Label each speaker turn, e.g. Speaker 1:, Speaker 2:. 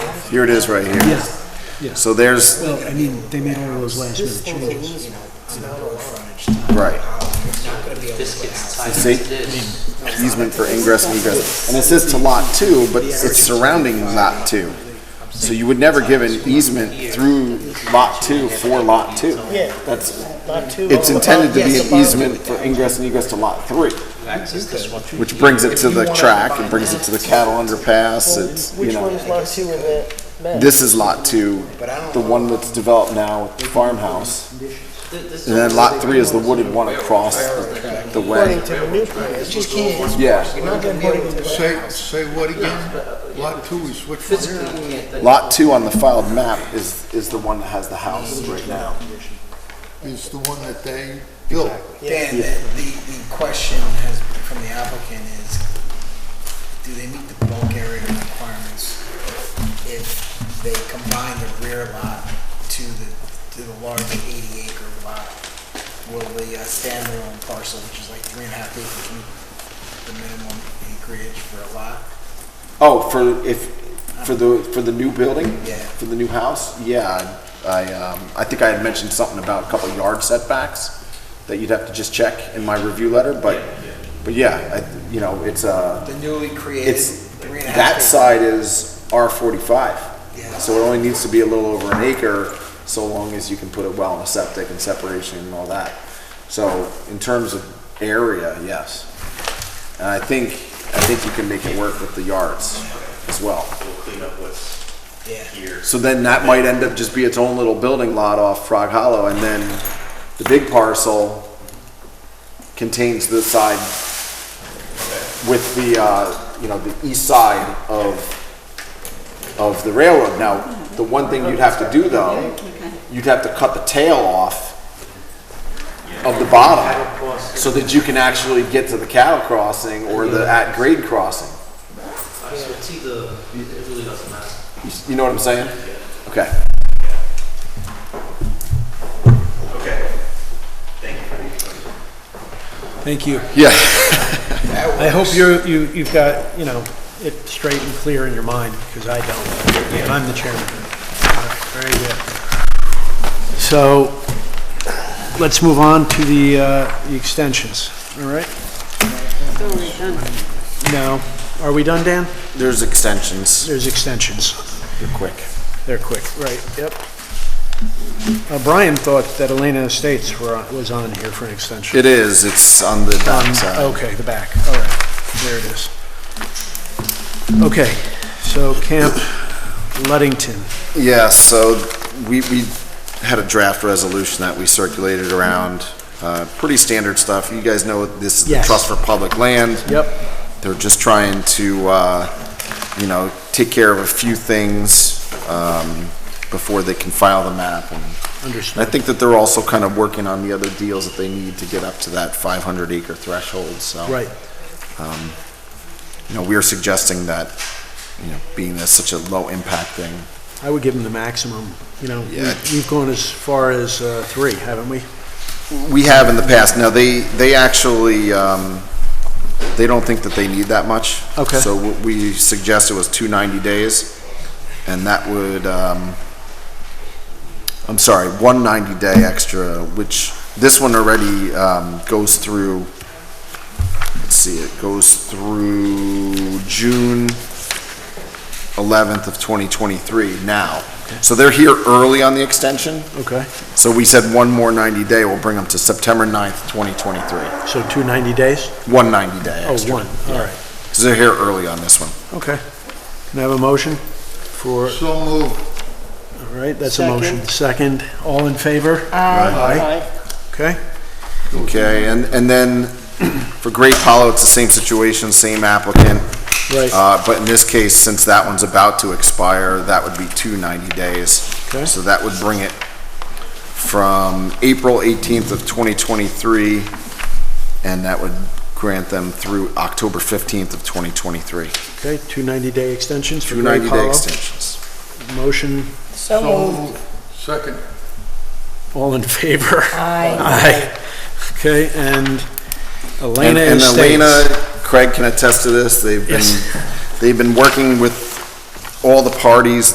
Speaker 1: Here it is right here.
Speaker 2: Yes, yes.
Speaker 1: So there's,
Speaker 2: Well, I mean, they made all those last minute changes.
Speaker 1: right,
Speaker 3: This gets tied
Speaker 1: See?
Speaker 3: into this.
Speaker 1: easement for ingress and egress. And it says to lot two, but it's surrounding lot two. So you would never give an easement through lot two for lot two.
Speaker 4: Yeah.
Speaker 1: That's,
Speaker 4: Lot two.
Speaker 1: it's
Speaker 4: oh,
Speaker 1: intended to
Speaker 4: yes,
Speaker 1: be
Speaker 4: the bottom.
Speaker 1: an easement for ingress and egress to lot three,
Speaker 3: Access this one.
Speaker 1: which brings it to the track, it brings it to the cattle underpass, it's, you
Speaker 4: Which one
Speaker 1: know.
Speaker 4: is lot two in that map?
Speaker 1: This is lot two, the one that's developed now with the farmhouse. And then lot three is the wooded one across the- the way.
Speaker 4: According to the new plan, it's just can't.
Speaker 1: Yeah.
Speaker 4: Not gonna be able to.
Speaker 5: Say, say what again? Lot two is which one?
Speaker 1: Lot two on the filed map is, is the one that has the house right now.
Speaker 5: Is the one that they built.
Speaker 6: Dan, the, the the question has, from the applicant is, do they meet the bulk area requirements if they combine the rear lot to the, to the large eighty acre lot? Will the uh, standalone parcel, which is like three and a half acres, meet the minimum acreage for a lot?
Speaker 1: Oh, for if, for the, for the new building?
Speaker 6: Yeah.
Speaker 1: For the new house? Yeah, I, um, I think I had mentioned something about a couple yard setbacks that you'd have to just check in my review letter, but, but yeah, I, you know, it's, uh,
Speaker 6: The newly created
Speaker 1: it's,
Speaker 6: three and a half.
Speaker 1: that
Speaker 6: acre-
Speaker 1: side is R forty-five.
Speaker 6: Yeah.
Speaker 1: So it only needs to be a little over an acre, so long as you can put a well and a septic and separation and all that. So in terms of area, yes. And I think, I think you can make it work with the yards as well.
Speaker 6: Yeah.
Speaker 1: So then that might end up just be its own little building lot off Frog Hollow, and then the big parcel contains the side with the, uh, you know, the east side of, of the railroad. Now, the one thing you'd have to do though, you'd have to cut the tail off of the bottom, so that you can actually get to the cattle crossing or the at-grade crossing.
Speaker 3: So it's either, it really doesn't matter.
Speaker 1: You s- You know what I'm saying? Okay.
Speaker 2: Thank you.
Speaker 1: Yeah.
Speaker 2: I hope you're, you, you've got, you know, it straight and clear in your mind, because I don't. And I'm the chairman. All right, Very good. So, let's move on to the, uh, the extensions, all right? No. Are we done, Dan?
Speaker 1: There's extensions.
Speaker 2: There's extensions.
Speaker 1: They're quick.
Speaker 2: They're quick, right, yep. Uh, Brian thought that Elena Estates were, on- was on here for an extension.
Speaker 1: It is. It's on the
Speaker 2: Um,
Speaker 1: back side.
Speaker 2: Okay, the back, all right, there it is. Okay, so Camp Luddington,
Speaker 1: Yeah, so we, we had a draft resolution that we circulated around. Uh, pretty standard stuff. You guys know this is the
Speaker 2: Yes.
Speaker 1: Trust for Public Land.
Speaker 2: Yep.
Speaker 1: They're just trying to, uh, you know, take care of a few things, um, before they can file the map and And
Speaker 2: understood.
Speaker 1: I think that they're also kind of working on the other deals that they need to get up to that 500 acre threshold, so. Um,
Speaker 2: Right,
Speaker 1: You know, we are suggesting that, you know, being that's such a low impact thing,
Speaker 2: I would give them the maximum, you know, we-
Speaker 1: Yeah.
Speaker 2: we've gone as far as uh, three, haven't we?
Speaker 1: we have in the past. Now, they, they actually, um, they don't think that they need that much.
Speaker 2: Okay.
Speaker 1: So what we suggested was 290 days, and that would, um, I'm sorry, 190 day extra, which this one already, um, goes through, let's see, it goes through June 11th of 2023 now. So they're here early on the extension.
Speaker 2: Okay,
Speaker 1: So we said one more 90 day, we'll bring them to September 9th, 2023.
Speaker 2: so two 90 days?
Speaker 1: One 90 day
Speaker 2: Oh,
Speaker 1: extra.
Speaker 2: one, all right,
Speaker 1: Because they're here early on this one.
Speaker 2: okay. Can I have a motion for,
Speaker 5: So moved.
Speaker 2: all right, that's a motion. Second, all in favor? Aye.
Speaker 4: Aye.
Speaker 2: Okay,
Speaker 1: Okay, and, and then for Great Hollow, it's the same situation, same applicant.
Speaker 2: Right.
Speaker 1: Uh, but in this case, since that one's about to expire, that would be two 90 days.
Speaker 2: Okay.
Speaker 1: So that would bring it from April 18th of 2023, and that would grant them through October 15th of 2023.
Speaker 2: okay, two 90-day extensions for
Speaker 1: Two
Speaker 2: Great
Speaker 1: 90 day
Speaker 2: Hollow.
Speaker 1: extensions.
Speaker 2: Motion,
Speaker 4: So
Speaker 5: So
Speaker 4: moved.
Speaker 5: moved. Second.
Speaker 2: all in favor?
Speaker 4: Aye.
Speaker 2: Aye. Okay, and
Speaker 1: And
Speaker 2: Elena
Speaker 1: and Elena,
Speaker 2: Estates.
Speaker 1: Craig can attest to this, they've been,
Speaker 2: Yes.
Speaker 1: they've been working with all the parties